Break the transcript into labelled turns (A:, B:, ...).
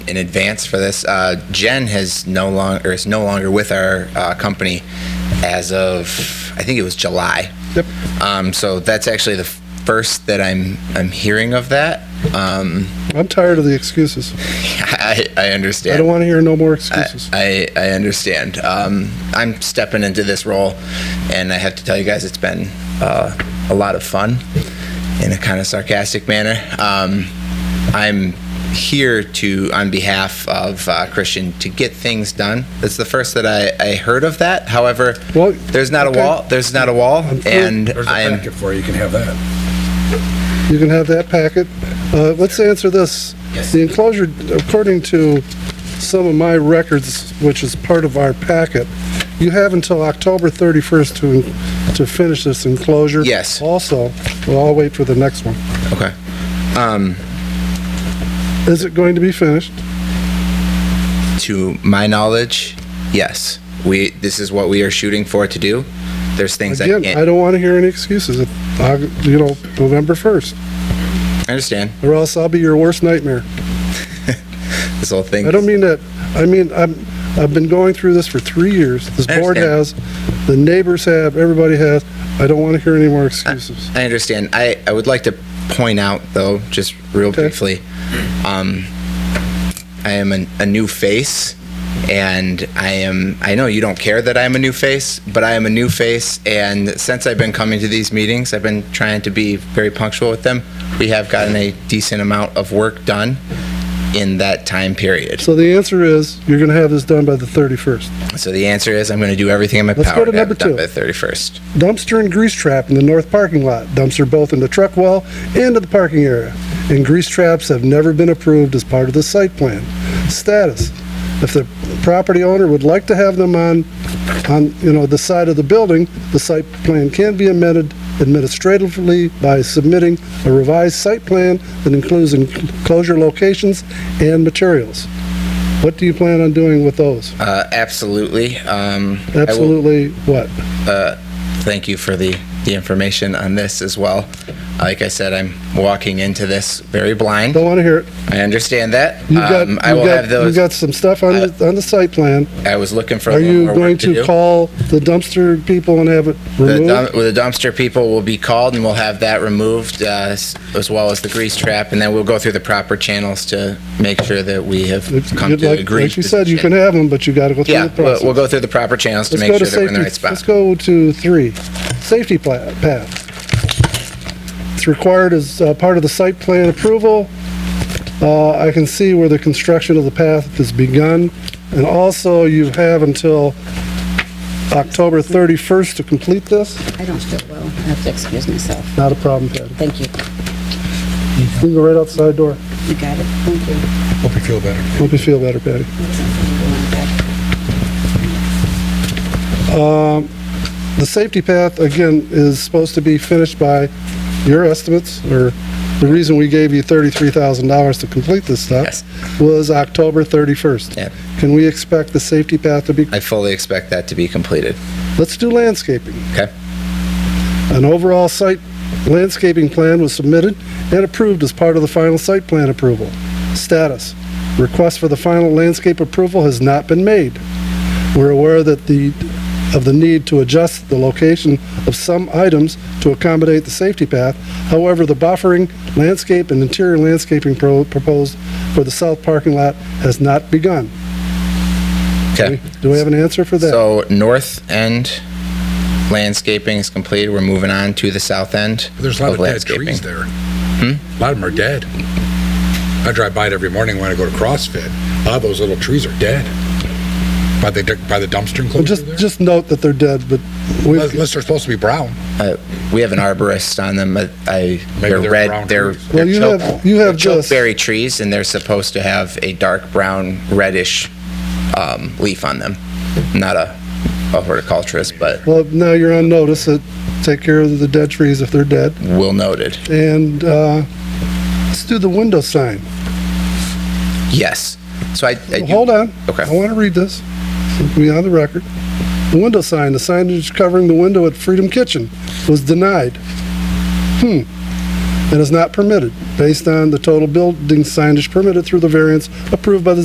A: in advance for this. Uh, Jen has no longer is no longer with our uh, company as of I think it was July.
B: Yep.
A: Um, so that's actually the first that I'm I'm hearing of that. Um,
B: I'm tired of the excuses.
A: I, I understand.
B: I don't want to hear no more
A: I-
B: excuses.
A: I, I understand. Um, I'm stepping into this role, and I have to tell you guys, it's been uh, a lot of fun in a kind of sarcastic manner. Um, I'm here to, on behalf of uh, Christian, to get things done. It's the first that I, I heard of that. However,
B: Well,
A: there's not
B: okay.
A: a wall. There's not a wall, and
C: There's a
A: I'm.
C: packet for you, you can have that.
B: You can have that packet. Uh, Let's answer this.
A: Yes.
B: The enclosure, according to some of my records, which is part of our packet, you have until October 31st to, to finish this enclosure.
A: Yes.
B: Also, well, I'll wait for the next one.
A: Okay.
B: Is it going to be finished?
A: to my knowledge, yes. We this is what we are shooting for to do. There's things I
B: Again,
A: can't.
B: I don't want to hear any excuses, If I- you know, November 1st,
A: I understand
B: or else I'll be your worst nightmare.
A: this whole thing.
B: I don't mean that, I mean, I'm, I've been going through this for three years. This
A: I
B: board has, the neighbors have, everybody has. I don't want to hear any more excuses.
A: I understand. I, I would like to point out, though, just real
B: Okay.
A: briefly, um, I am an, a new face, and I am. I know you don't care that I am a new face, but I am a new face, and since I've been coming to these meetings, I've been trying to be very punctual with them. We have gotten a decent amount of work done in that time period.
B: So the answer is, you're going to have this done by the 31st.
A: So the answer is, I'm going to do everything in my
B: Let's go
A: power
B: to
A: to have
B: number
A: it done
B: two.
A: by the 31st.
B: Dumpster and grease trap in the north parking lot. Dumpster both in the truck well and in the parking area. And grease traps have never been approved as part of the site plan. Status, if the property owner would like to have them on, on, you know, the side of the building, the site plan can be amended administratively by submitting a revised site plan that includes enclosure locations and materials. What do you plan on doing with those?
A: Uh, absolutely. Um, I will-
B: Absolutely what?
A: thank you for the, the information on this as well. Like I said, I'm walking into this very blind.
B: Don't want to hear it.
A: I understand that.
B: You've got,
A: Um, I
B: you've
A: will
B: got-
A: have those. uh,
B: You've got some stuff on the, on the site plan.
A: I was looking for a
B: Are
A: little
B: you
A: more
B: going
A: work to
B: to
A: do.
B: call the dumpster people and have it
A: The
B: removed?
A: dump- well, the dumpster people will be called and we'll have that removed, uh, s- as well as the grease trap. And then we'll go through the proper channels to make sure that we have
B: If
A: come
B: you'd
A: to
B: like-
A: agree.
B: Like you said, you can have them, but you got to go through
A: Yeah,
B: the
A: we'll,
B: process.
A: we'll go through the proper channels to
B: Let's
A: make
B: go
A: sure that we're in the
B: safety-
A: right spot.
B: Let's go to three, safety pla- path. It's required as uh, part of the site plan approval. Uh, I can see where the construction of the path has begun, and also you have until October 31st to complete this.
D: I don't feel well. I have to excuse myself.
B: Not a problem, Patty.
D: Thank you.
B: You can go right outside door.
D: You got it. Thank you.
C: Hope you feel better.
B: Hope you feel better, Patty. The safety path, again, is supposed to be finished by your estimates, or the reason we gave you $33,000 to complete this
A: Yes.
B: stuff was October 31st.
A: Yep.
B: Can we expect the safety path to be,
A: I fully expect that to be completed.
B: let's do landscaping.
A: Okay?
B: An overall site landscaping plan was submitted and approved as part of the final site plan approval. Status, request for the final landscape approval has not been made. We're aware that the, of the need to adjust the location of some items to accommodate the safety path. However, the buffering, landscape, and interior landscaping pro- proposed for the south parking lot has not begun.
A: Okay.
B: Do we have an answer for that?
A: So north end landscaping is complete. We're moving on to the south end.
C: There's a lot of dead trees there. A lot of them are dead. I drive by it every morning when I go to CrossFit. A lot of those little trees are dead. By the, by the dumpster
B: Well,
C: enclosure
B: Just,
C: there.
B: just note that they're dead, but we've
C: Unless unless they're supposed to be brown.
A: Uh, we have an arborist on them. I, I they're,
C: they're
A: red.
C: brown
A: They're,
C: trees.
A: they're
B: Well, you
A: choke-
B: have- you have
A: they're
B: just-
A: chokeberry trees, and they're supposed to have a dark brown, reddish um, leaf on them. Not a, a horticulturist, but
B: Well, now you're on notice that take care of the dead trees if they're dead.
A: well noted.
B: And uh, let's do the window sign.
A: Yes. So I, I do-
B: Hold on.
A: Okay.
B: I want to read this. It'll be on the record. The window sign, the signage covering the window at Freedom Kitchen was denied. Hmm. And is not permitted based on the total building signage permitted through the variance approved by the